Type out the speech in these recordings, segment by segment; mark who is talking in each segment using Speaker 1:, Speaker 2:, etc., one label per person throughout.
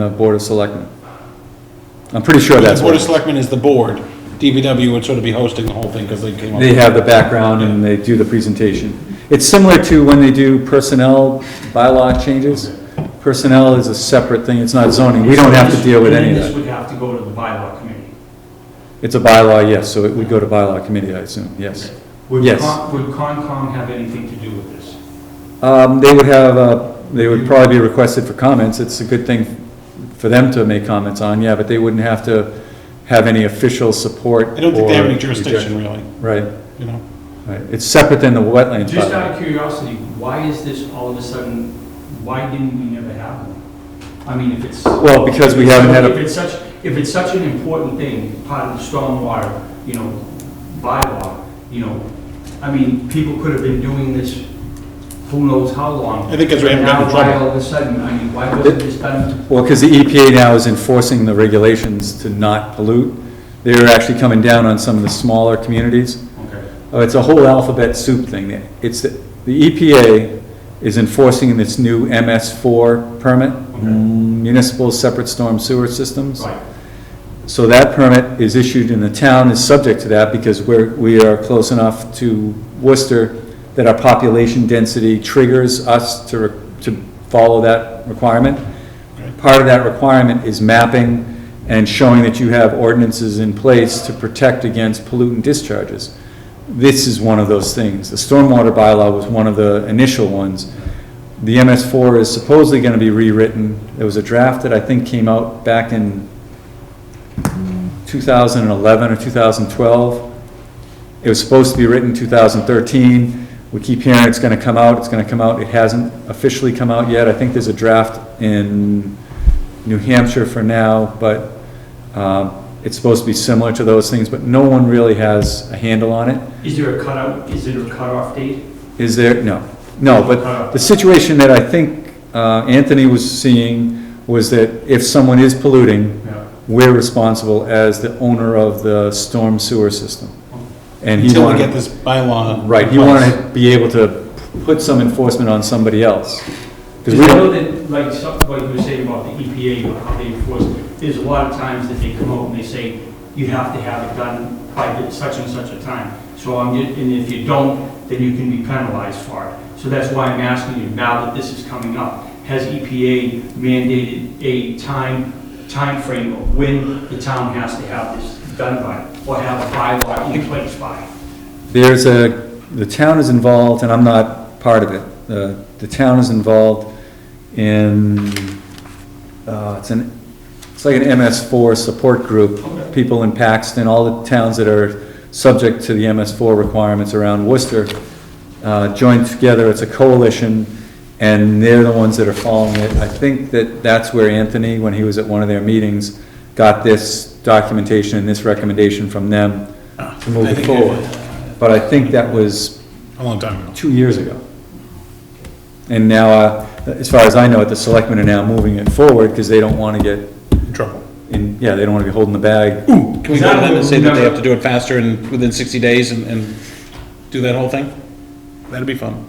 Speaker 1: the Board of Selectmen. I'm pretty sure that's
Speaker 2: The Board
Speaker 1: what,
Speaker 2: of Selectmen is the board. DPW would sort of be hosting the whole thing because they came up.
Speaker 1: they have the background and they do the presentation. It's similar to when they do personnel bylaw changes. Personnel is a separate thing, it's not zoning, we don't have to deal with any of
Speaker 3: And this
Speaker 1: that.
Speaker 3: would have to go to the bylaw committee.
Speaker 1: It's a bylaw, yes, so it would go to bylaw committee, I assume, yes.
Speaker 3: Would
Speaker 1: Yes.
Speaker 3: Con- Would Concom have anything to do with this?
Speaker 1: Um, they would have, uh, they would probably be requested for comments, it's a good thing for them to make comments on, yeah, but they wouldn't have to have any official support
Speaker 2: I don't think they have
Speaker 1: or
Speaker 2: any jurisdiction,
Speaker 1: rejection.
Speaker 2: really,
Speaker 1: Right,
Speaker 2: you know?
Speaker 1: right, it's separate than the wetlands bylaw.
Speaker 3: Just out of curiosity, why is this all of a sudden, why didn't we never have one? I mean, if it's.
Speaker 1: Well, because we haven't had a-
Speaker 3: If it's such, if it's such an important thing, part of the stormwater, you know, bylaw, you know, I mean, people could have been doing this who knows how long.
Speaker 2: I think 'cause we haven't gotten in
Speaker 3: Now,
Speaker 2: trouble.
Speaker 3: why all of a sudden, I mean, why wasn't this done?
Speaker 1: Well, because the EPA now is enforcing the regulations to not pollute. They're actually coming down on some of the smaller communities.
Speaker 3: Okay.
Speaker 1: Oh, It's a whole alphabet soup thing. It's, the EPA is enforcing this new MS4 permit, municipal separate storm sewer systems.
Speaker 3: Right,
Speaker 1: So that permit is issued and the town is subject to that because we're, we are close enough to Worcester that our population density triggers us to, re- to follow that requirement. Part of that requirement is mapping and showing that you have ordinances in place to protect against pollutant discharges. This is one of those things. The stormwater bylaw was one of the initial ones. The MS4 is supposedly going to be rewritten. There was a draft that I think came out back in 2011 or 2012. It was supposed to be written 2013. We keep hearing it's going to come out, it's going to come out. It hasn't officially come out yet. I think there's a draft in New Hampshire for now, but um, it's supposed to be similar to those things, but no one really has a handle on it.
Speaker 3: is there a cutout, is there a cutoff date?
Speaker 1: Is there, no, no, but the situation that I think uh, Anthony was seeing was that if someone is polluting,
Speaker 3: Yeah.
Speaker 1: we're responsible as the owner of the storm sewer system. And he
Speaker 2: Until we get
Speaker 1: wanted,
Speaker 2: this bylaw.
Speaker 1: right, he
Speaker 2: in place.
Speaker 1: wanted to be able to put some enforcement on somebody else. Because
Speaker 3: Because
Speaker 1: we
Speaker 3: I know
Speaker 1: don't,
Speaker 3: that, like, some- like you were saying about the EPA, about how they enforce, there's a lot of times that they come out and they say, you have to have it done by the- such and such a time. So I'm, ju- and if you don't, then you can be penalized for it. So that's why I'm asking you, now that this is coming up, has EPA mandated a time, time frame of when the town has to have this done by, or have a bylaw in place by?
Speaker 1: there's a, the town is involved, and I'm not part of it. The, the town is involved in, uh, it's an, it's like an MS4 support group.
Speaker 3: Okay.
Speaker 1: People in Paxton, all the towns that are subject to the MS4 requirements around Worcester, uh, joined together, it's a coalition, and they're the ones that are following it. I think that that's where Anthony, when he was at one of their meetings, got this documentation and this recommendation from them to move
Speaker 2: I
Speaker 1: it
Speaker 2: think-
Speaker 1: forward. But I think that was
Speaker 2: A long time ago.
Speaker 1: two years ago. And now, uh, as far as I know it, the selectmen are now moving it forward because they don't want to get,
Speaker 2: In Trouble.
Speaker 1: in yeah, they don't want to be holding the bag.
Speaker 2: Can we go to them and say that they have to do it faster and within 60 days and, and do that whole thing? That'd be fun.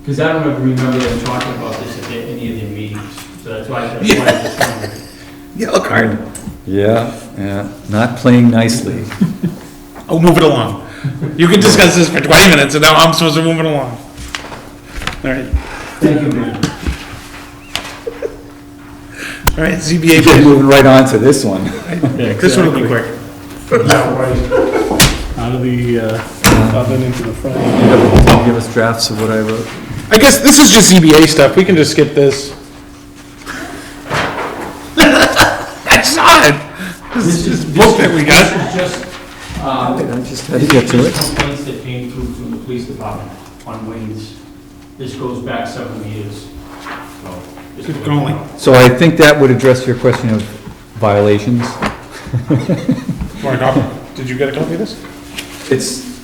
Speaker 3: Because I don't ever remember them talking about this at any of their meetings, so that's why, that's why I just wondered.
Speaker 2: Yellow card.
Speaker 1: Yeah, yeah, not playing nicely.
Speaker 2: Oh, move it along. You can discuss this for 20 minutes and now I'm supposed to move it along. All right,
Speaker 3: Thank you, man.
Speaker 2: all right, ZBA,
Speaker 1: You're moving right on to this one.
Speaker 2: this one will be quick.
Speaker 4: out of the uh, oven into the front.
Speaker 1: Give us drafts of what I wrote.
Speaker 2: I guess this is just ZBA stuff, we can just skip this. I saw it! This is just bullshit we got.
Speaker 3: This is just, uh,
Speaker 1: I just had to get to it.
Speaker 3: complaints that came through from the police department on Wayne's. This goes back several years, so. this
Speaker 2: Good
Speaker 3: goes
Speaker 2: going.
Speaker 3: back.
Speaker 1: So I think that would address your question of violations.
Speaker 2: Mark, I'll- Did you get a copy of this?
Speaker 1: It's,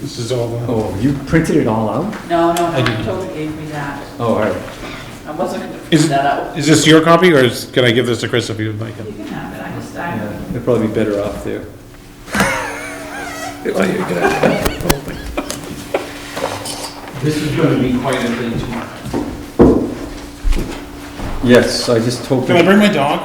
Speaker 2: This is all. uh,
Speaker 1: oh, you printed it all out?
Speaker 5: No, no, no, Toby gave me that.
Speaker 1: Oh, all right.
Speaker 5: I wasn't gonna print
Speaker 2: Is-
Speaker 5: that out.
Speaker 2: uh, Is this your copy, or is, can I give this to Chris if you'd like it?
Speaker 5: You can have it, I just, I,
Speaker 1: Yeah, They'd probably be better off there.
Speaker 3: This is gonna be quite a thing tomorrow.
Speaker 6: Yes, I just hope.
Speaker 1: Can I bring my dog?